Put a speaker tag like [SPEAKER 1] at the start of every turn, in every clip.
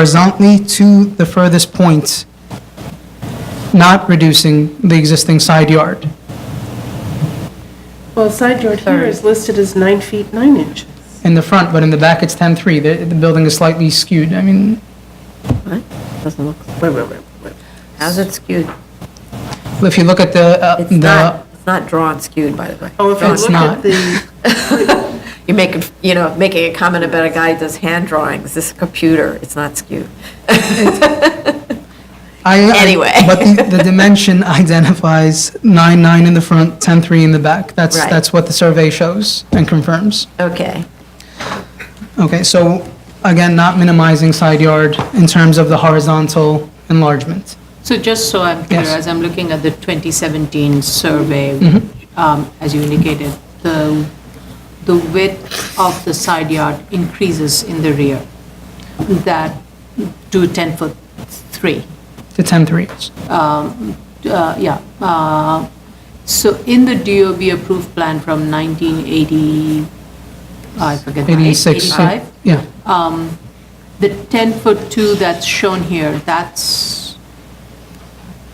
[SPEAKER 1] horizontally to the furthest point, not reducing the existing side yard.
[SPEAKER 2] Well, side yard here is listed as nine feet, nine inches.
[SPEAKER 1] in the front, but in the back, it's 10-3. The, the building is slightly skewed. I mean,
[SPEAKER 3] Doesn't look,
[SPEAKER 2] Wait, wait, wait, wait.
[SPEAKER 3] how's it skewed?
[SPEAKER 1] if you look at the, uh,
[SPEAKER 3] It's
[SPEAKER 1] the,
[SPEAKER 3] not, it's not drawn skewed, by the way.
[SPEAKER 2] Oh, if you
[SPEAKER 3] Drawn.
[SPEAKER 1] It's
[SPEAKER 2] look at
[SPEAKER 1] not.
[SPEAKER 2] the,
[SPEAKER 3] You're making, you know, making a comment about a guy who does hand drawings, this is a computer, it's not skewed.
[SPEAKER 1] I. I-
[SPEAKER 3] Anyway.
[SPEAKER 1] But the, the dimension identifies 9-9 in the front, 10-3 in the back. That's,
[SPEAKER 3] Right.
[SPEAKER 1] that's what the survey shows and confirms.
[SPEAKER 3] Okay,
[SPEAKER 1] Okay, so again, not minimizing side yard in terms of the horizontal enlargement.
[SPEAKER 4] So just so I'm clear,
[SPEAKER 1] Yes.
[SPEAKER 4] as I'm looking at the 2017 survey, um, as you indicated, the, the width of the side yard increases in the rear, that to 10 foot 3,
[SPEAKER 1] The 10-3.
[SPEAKER 4] Uh, yeah. uh, So in the DOB approved plan from 1980, I forget. the-
[SPEAKER 1] 86.
[SPEAKER 4] 85?
[SPEAKER 1] Yeah,
[SPEAKER 4] The 10 foot 2 that's shown here, that's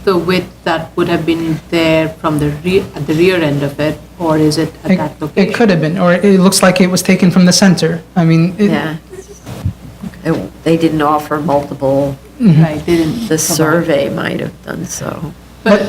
[SPEAKER 4] the width that would have been there from the rear, at the rear end of it, or is it at
[SPEAKER 1] it
[SPEAKER 4] that
[SPEAKER 1] it
[SPEAKER 4] location?
[SPEAKER 1] could have been, or it looks like it was taken from the center. I mean, it-
[SPEAKER 3] yeah. It- They didn't offer multiple,
[SPEAKER 1] mm-hmm.
[SPEAKER 4] Right, they didn't.
[SPEAKER 3] the
[SPEAKER 4] provide.
[SPEAKER 3] survey might have done so.
[SPEAKER 1] but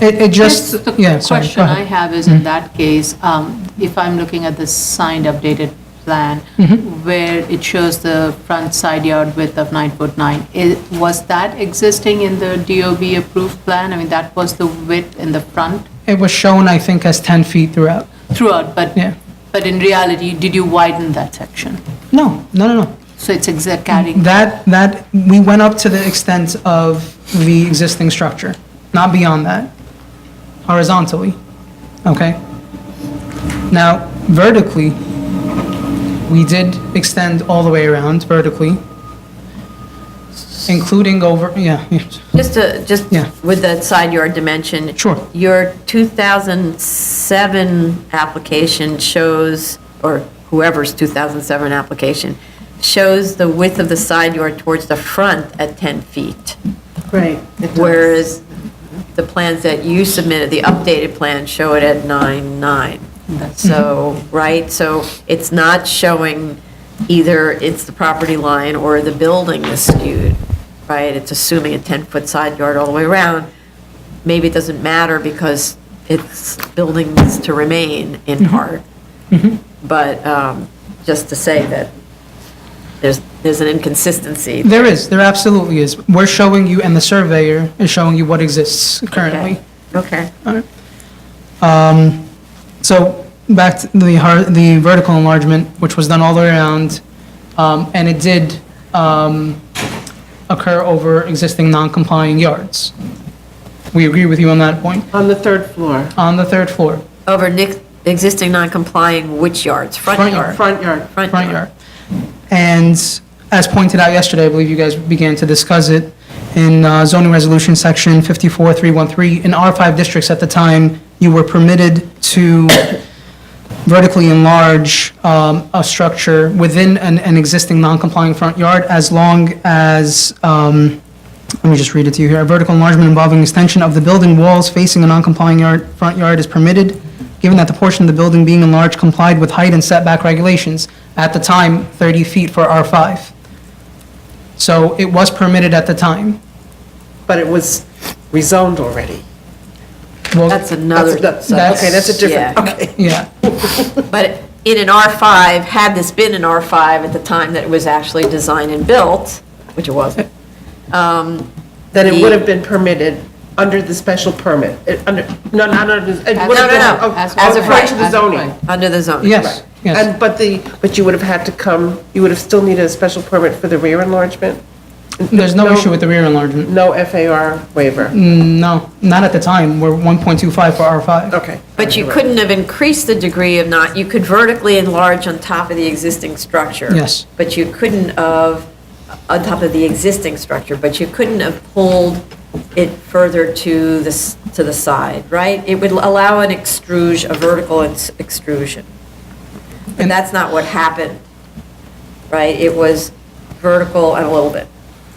[SPEAKER 1] it, it just,
[SPEAKER 4] Just
[SPEAKER 1] yeah,
[SPEAKER 4] the
[SPEAKER 1] sorry. go
[SPEAKER 4] question
[SPEAKER 1] ahead. Mm-hmm.
[SPEAKER 4] I have is, in that case, um, if I'm looking at the signed updated plan,
[SPEAKER 1] Mm-hmm.
[SPEAKER 4] where it shows the front side yard width of nine foot nine, i- was that existing in the DOB approved plan? I mean, that was the width in the front
[SPEAKER 1] It was shown, I think, as 10 feet throughout.
[SPEAKER 4] throughout, but,
[SPEAKER 1] Yeah.
[SPEAKER 4] but in reality, did you widen that section?
[SPEAKER 1] No, no, no, no.
[SPEAKER 4] So it's exact carrying,
[SPEAKER 1] That, that, we went up to the extent of the existing structure, not beyond that, horizontally, okay? Now, vertically, we did extend all the way around vertically, including over, yeah, yeah,
[SPEAKER 3] Just to, just
[SPEAKER 1] Yeah.
[SPEAKER 3] with that side yard dimension.
[SPEAKER 1] Sure.
[SPEAKER 3] Your 2007 application shows, or whoever's 2007 application, shows the width of the side yard towards the front at 10 feet.
[SPEAKER 2] right. it does.
[SPEAKER 3] Whereas the plans that you submitted, the updated plan, show it at nine nine. So, right, so it's not showing either it's the property line or the building is skewed, right? It's assuming a 10-foot side yard all the way around. Maybe it doesn't matter because it's buildings to remain in
[SPEAKER 2] Mm-hmm.
[SPEAKER 3] part. But um, just to say that there's, there's an inconsistency.
[SPEAKER 1] There is, there absolutely is. We're showing you, and the surveyor is showing you what exists currently.
[SPEAKER 3] Okay.
[SPEAKER 1] So back to the, har- the vertical enlargement, which was done all the way around, um, and it did um, occur over existing non-compliant yards. We agree with you on that point.
[SPEAKER 2] On the third floor.
[SPEAKER 1] On the third floor,
[SPEAKER 3] Over nic- existing non-complying which yards?
[SPEAKER 1] Front
[SPEAKER 3] Front yard?
[SPEAKER 2] Front yard.
[SPEAKER 1] front yard. And as pointed out yesterday, I believe you guys began to discuss it, in uh, zoning resolution section 54313, in R5 districts at the time, you were permitted to vertically enlarge um, a structure within an, an existing non-complying front yard as long as, um, let me just read it to you here, a vertical enlargement involving extension of the building walls facing a non-complying yard, front yard is permitted, given that the portion of the building being enlarged complied with height and setback regulations, at the time, 30 feet for R5. So it was permitted at the time.
[SPEAKER 2] But it was rezoned already.
[SPEAKER 1] Well,
[SPEAKER 3] That's another,
[SPEAKER 2] That's-
[SPEAKER 1] that's-
[SPEAKER 2] Okay, that's a different,
[SPEAKER 3] yeah.
[SPEAKER 2] okay.
[SPEAKER 1] Yeah,
[SPEAKER 3] but in an R5, had this been an R5 at the time that it was actually designed and built, which it wasn't, um,
[SPEAKER 2] Then it
[SPEAKER 3] The-
[SPEAKER 2] would have been permitted under the special permit, It- under, no, not under, it would
[SPEAKER 3] No,
[SPEAKER 2] have
[SPEAKER 3] no,
[SPEAKER 2] been.
[SPEAKER 3] no,
[SPEAKER 2] oh,
[SPEAKER 3] as of
[SPEAKER 2] according
[SPEAKER 3] right,
[SPEAKER 2] to the
[SPEAKER 4] as of right.
[SPEAKER 2] zoning.
[SPEAKER 3] under the zoning.
[SPEAKER 1] yes, yes.
[SPEAKER 2] And, but the, but you would have had to come, you would have still needed a special permit for the rear enlargement?
[SPEAKER 1] There's no issue with the rear enlargement.
[SPEAKER 2] No FAR waiver?
[SPEAKER 1] No, not at the time. We're 1.25 for R5.
[SPEAKER 2] Okay.
[SPEAKER 3] But you couldn't have increased the degree of not, you could vertically enlarge on top of the existing structure.
[SPEAKER 1] Yes.
[SPEAKER 3] But you couldn't have, on top of the existing structure, but you couldn't have pulled it further to the, s- to the side, right? It would allow an extrusion, a vertical ex- extrusion. But
[SPEAKER 1] And-
[SPEAKER 3] that's not what happened, right? It was vertical and a little bit.